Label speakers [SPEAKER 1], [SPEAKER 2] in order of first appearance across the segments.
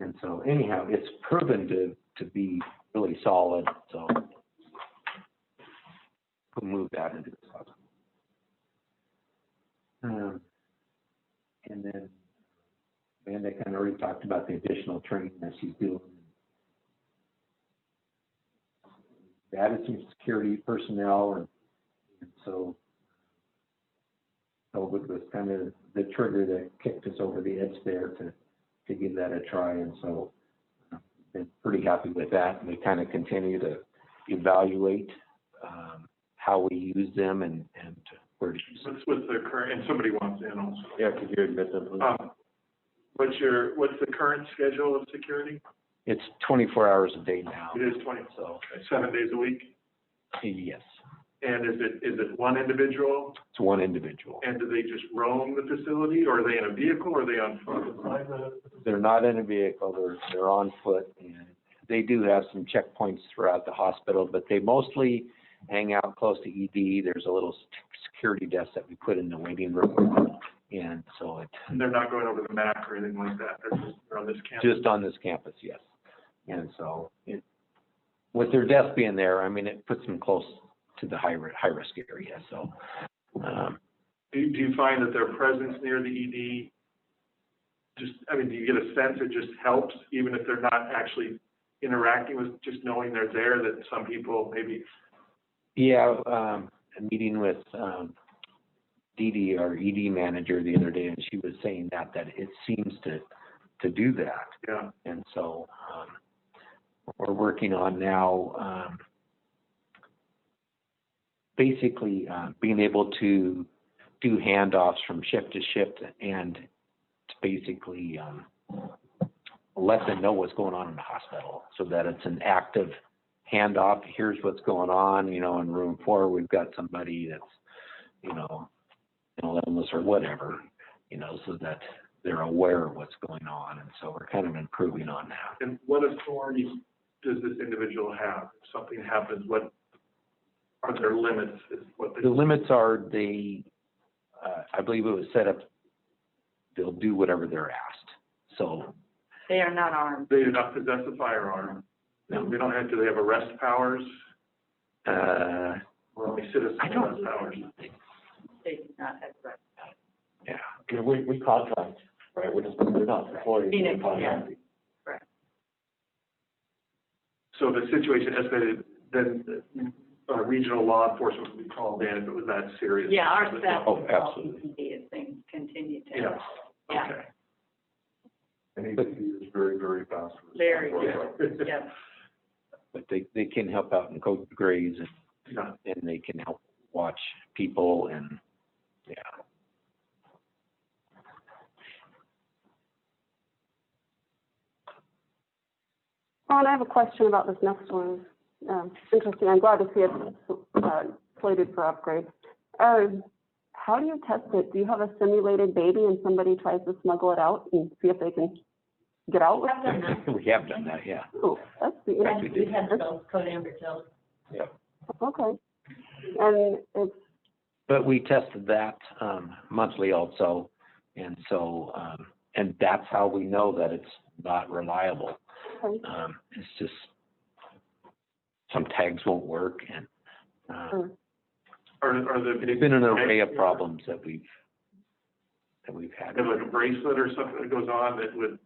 [SPEAKER 1] And so anyhow, it's proven to, to be really solid, so we'll move that into the cloud. Um, And then, and they kind of already talked about the additional training that she's doing. They Added some security personnel and, and so COVID was kind of the trigger that kicked us over the edge there to, to give that a try. And so uh, been pretty happy with that. And we kind of continue to evaluate um, how we use them and, and where to use them.
[SPEAKER 2] What's with the current, and somebody wants in also.
[SPEAKER 3] Yeah, could you admit that, please?
[SPEAKER 2] Um, What's your, what's the current schedule of security?
[SPEAKER 1] It's 24 hours a day now.
[SPEAKER 2] It is twenty,
[SPEAKER 1] So,
[SPEAKER 2] seven days a week?
[SPEAKER 1] yes,
[SPEAKER 2] And is it, is it one individual?
[SPEAKER 1] it's one individual.
[SPEAKER 2] And do they just roam the facility, or are they in a vehicle, or are they on foot? Like the-
[SPEAKER 1] They're not in a vehicle, they're, they're on foot and they do have some checkpoints throughout the hospital, but they mostly hang out close to ED. There's a little s- security desk that we put in the waiting room. And so it,
[SPEAKER 2] And they're not going over the MAC or anything like that, they're just, they're on this campus?
[SPEAKER 1] just on this campus, yes. And so it, with their desk being there, I mean, it puts them close to the high, ri- high risk area, so. Um,
[SPEAKER 2] Do, you- do you find that their presence near the ED, just, I mean, do you get a sense it just helps, even if they're not actually interacting with, just knowing they're there, that some people maybe
[SPEAKER 1] Yeah, um, a meeting with, um, Dee Dee, our ED manager the other day, and she was saying that, that it seems to, to do that.
[SPEAKER 2] Yeah,
[SPEAKER 1] And so, um, we're working on now, um, basically, uh, being able to do handoffs from shift to shift and to basically, um, let them know what's going on in the hospital so that it's an active handoff. Here's what's going on, you know, in room four, we've got somebody that's, you know, an illness or whatever, you know, so that they're aware of what's going on, and so we're kind of improving on that.
[SPEAKER 2] and what authority does this individual have? If something happens, what are their limits, is what they,
[SPEAKER 1] The limits are they, uh, I believe it was set up, they'll do whatever they're asked, so.
[SPEAKER 4] They are not armed.
[SPEAKER 2] they do not possess a firearm. They don't have, do they have arrest powers,
[SPEAKER 1] Uh,
[SPEAKER 2] or only citizen
[SPEAKER 1] I
[SPEAKER 2] arrest
[SPEAKER 1] don't.
[SPEAKER 2] powers?
[SPEAKER 4] They do not have rights.
[SPEAKER 1] Yeah,
[SPEAKER 3] Yeah, We, we contract, right, we're just, we're not employees,
[SPEAKER 4] Being
[SPEAKER 3] we're
[SPEAKER 4] employed,
[SPEAKER 3] contracted.
[SPEAKER 2] So the situation escalated, then uh, regional law enforcement would be called in if it was that serious.
[SPEAKER 4] Yeah, our staff.
[SPEAKER 1] Oh, absolutely.
[SPEAKER 4] If things continue to.
[SPEAKER 2] Yeah,
[SPEAKER 4] Yeah,
[SPEAKER 2] okay.
[SPEAKER 3] And he, he is very, very fast.
[SPEAKER 4] Very
[SPEAKER 2] Yeah.
[SPEAKER 4] yeah.
[SPEAKER 1] but they, they can help out in code grays, and,
[SPEAKER 2] Yeah.
[SPEAKER 1] and they can help watch people, and, yeah.
[SPEAKER 5] Ron, I have a question about this next one. Um, it's interesting. I'm glad to see it uh, slated for upgrade. Um, how do you test it? Do you have a simulated baby and somebody tries to smuggle it out and see if they can get out with it?
[SPEAKER 1] We have done that, yeah.
[SPEAKER 5] Ooh, that's the
[SPEAKER 1] Right, we did.
[SPEAKER 4] those code amber tells.
[SPEAKER 5] okay. And it's
[SPEAKER 1] But we tested that, um, monthly also, and so, um, and that's how we know that it's not reliable.
[SPEAKER 5] okay.
[SPEAKER 1] Um, it's just, some tags won't work and, uh,
[SPEAKER 5] Sure.
[SPEAKER 2] Are, are the,
[SPEAKER 1] it's been an array of problems that we've, that we've had.
[SPEAKER 2] they have like a bracelet or something that goes on that would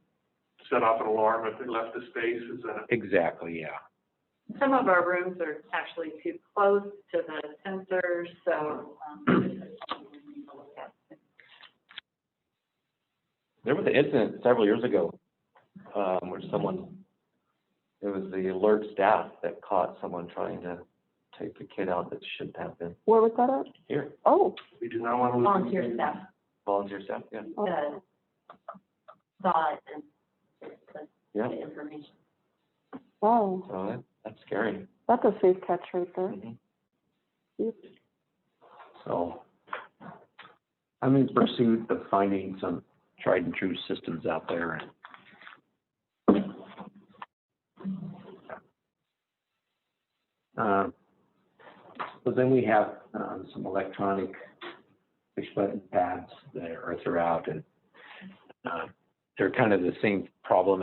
[SPEAKER 2] set off an alarm if they left the space, is that?
[SPEAKER 1] Exactly, yeah.
[SPEAKER 4] Some of our rooms are actually too close to the sensors, so, um,
[SPEAKER 3] There was an incident several years ago, um, where someone, it was the alert staff that caught someone trying to take the kid out that shouldn't have been
[SPEAKER 5] where was that at?
[SPEAKER 3] here,
[SPEAKER 5] Oh,
[SPEAKER 2] We do not want to lose.
[SPEAKER 4] volunteer staff
[SPEAKER 3] volunteer staff, yeah.
[SPEAKER 5] okay.
[SPEAKER 4] uh, saw it and
[SPEAKER 3] Yeah.
[SPEAKER 4] the information.
[SPEAKER 5] wow.
[SPEAKER 3] So that, that's scary.
[SPEAKER 5] That's a safe catch right there.
[SPEAKER 3] Mhm.
[SPEAKER 1] So I'm in pursuit of finding some tried and true systems out there and Um, so then we have, um, some electronic push button pads that are throughout and, um, they're kind uh, of the same problem